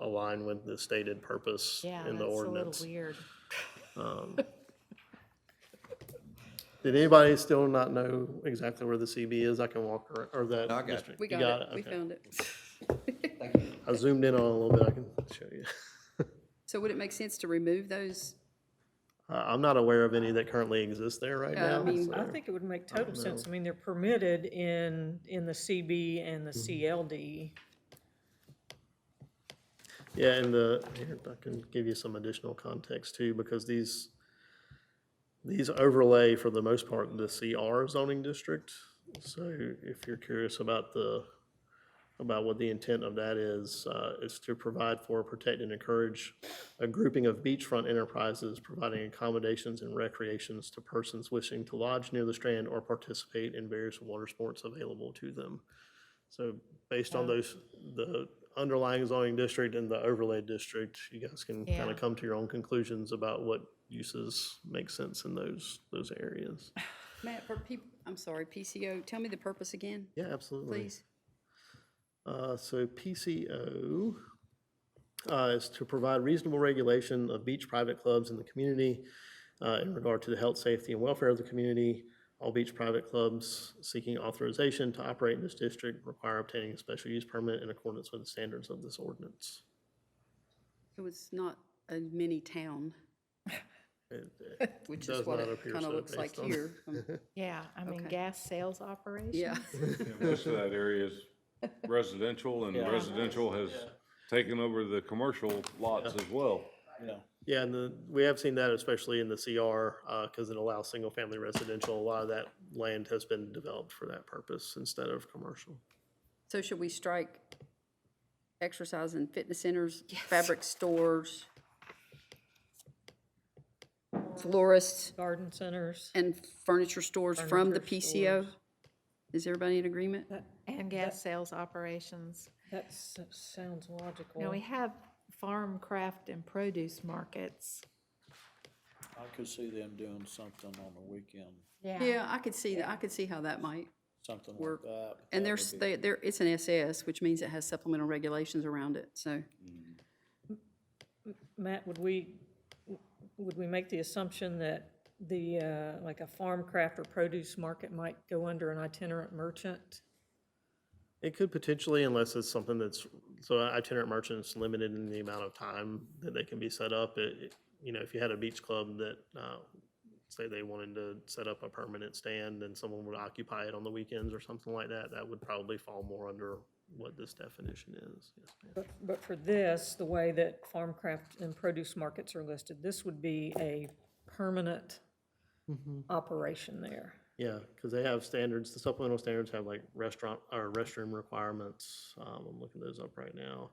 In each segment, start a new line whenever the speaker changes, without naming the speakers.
align with the stated purpose
Yeah,
in
that's
the
a little
ordinance.
weird.
Um, Did anybody still not know exactly where the CB is? I can walk, ar- or that.
No, I got it.
district.
We
You
got it, we
Okay.
found it.
I zoomed in on it a little bit, I can show you.
So would it make sense to remove those?
I- Uh, I'm not aware of any that currently exist there right
Yeah, I
now.
mean-
I
so-
think it would make total sense. I mean, they're permitted in, in the CB and the CLD.
Yeah, and the, here, I can give you some additional context too, because these, these overlay for the most part the CR zoning district. So if you're curious about the, about what the intent of that is, uh, is to provide for, protect, and encourage a grouping of beachfront enterprises providing accommodations and recreations to persons wishing to lodge near the strand or participate in various water sports available to them. So based on those, the underlying zoning district and the overlay district, you guys can kind
Yeah.
of come to your own conclusions about what uses make sense in those, those areas.
Matt, for people, I'm sorry, PCO, tell me the purpose again,
Yeah, absolutely.
please.
Uh, So PCO uh, is to provide reasonable regulation of beach private clubs in the community uh, in regard to the health, safety, and welfare of the community. All beach private clubs seeking authorization to operate in this district require obtaining a special use permit in accordance with the standards of this ordinance.
It was not a mini town,
It-
which
Does
is what
not
it
appear
kind of
so
looks like
based on-
here. Um,
Yeah, I mean,
Okay.
gas sales operation.
Yeah,
Yeah, Most of that area is residential, and residential has taken over the commercial lots as well.
Yeah, and the, we have seen that especially in the CR, uh, cause it allows single-family residential. A lot of that land has been developed for that purpose instead of commercial.
so should we strike exercise and fitness centers, fabric stores, florists,
Garden centers,
and furniture stores from the
Furniture
PCO?
stores.
Is everybody in agreement?
And gas sales operations.
that s- sounds logical.
Now, we have farm, craft, and produce markets.
I could see them doing something on the weekend,
Yeah, I could see that, I could see how that might.
something
Work.
like that.
And there's, they, there, it's an SS, which means it has supplemental regulations around it, so.
Matt, would we, would we make the assumption that the, uh, like a farm craft or produce market might go under an itinerant merchant?
It could potentially, unless it's something that's, so itinerant merchants limited in the amount of time that they can be set up. It, it- you know, if you had a beach club that, uh, say they wanted to set up a permanent stand and someone would occupy it on the weekends or something like that, that would probably fall more under what this definition is. Yes, ma'am.
But, but for this, the way that farm craft and produce markets are listed, this would be a permanent operation there.
Yeah, because they have standards, the supplemental standards have like restaurant, or restroom requirements. Um, I'm looking those up right now.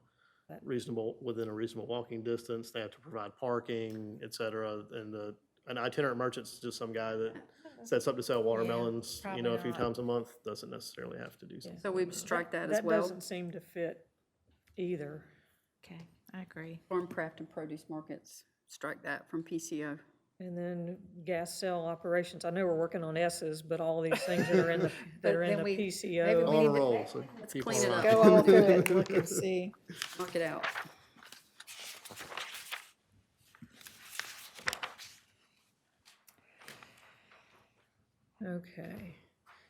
That-
Reasonable, within a reasonable walking distance, they have to provide parking, et cetera. And the, an itinerant merchant's just some guy that sets up to sell watermelons, you know, a few
probably not.
times a month, doesn't necessarily have to do something.
So we would strike that as
That
well,
doesn't seem to fit either.
Okay, I agree.
farm craft and produce markets, strike that from PCO.
And then gas cell operations, I know we're working on S's, but all these things that are in the, that are in
then
the
we- maybe
PCO.
we-
On a
need to-
roll, so keep
clean it
on
up.
rocking.
Go all through it, and look and see.
Knock it out.
Okay,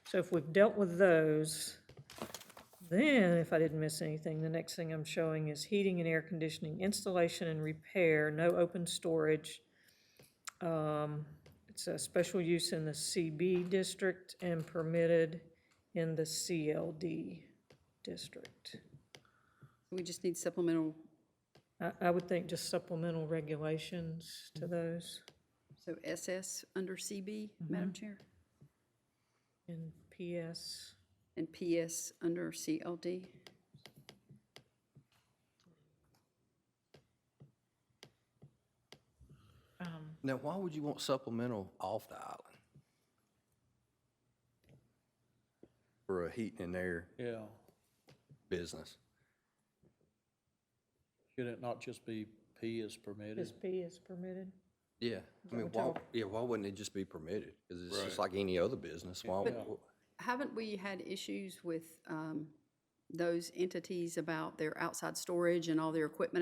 so if we've dealt with those, then if I didn't miss anything, the next thing I'm showing is heating and air conditioning installation and repair, no open storage. Um, It's a special use in the CB district and permitted in the CLD district.
We just need supplemental,
I, I would think just supplemental regulations to those
so SS under CB,
Mm-hmm.
Madam Chair,
in PS.
and PS under CLD.
Um,
Now, why would you want supplemental off the island? For a heating and air
Yeah,
business?
should it not just be P is permitted?
This P is permitted.
Yeah, I mean, why, yeah, why wouldn't it just be permitted? Cause it's just like any other business, why?
But-
wh-
Haven't we had issues with um, those entities about their outside storage and all their equipment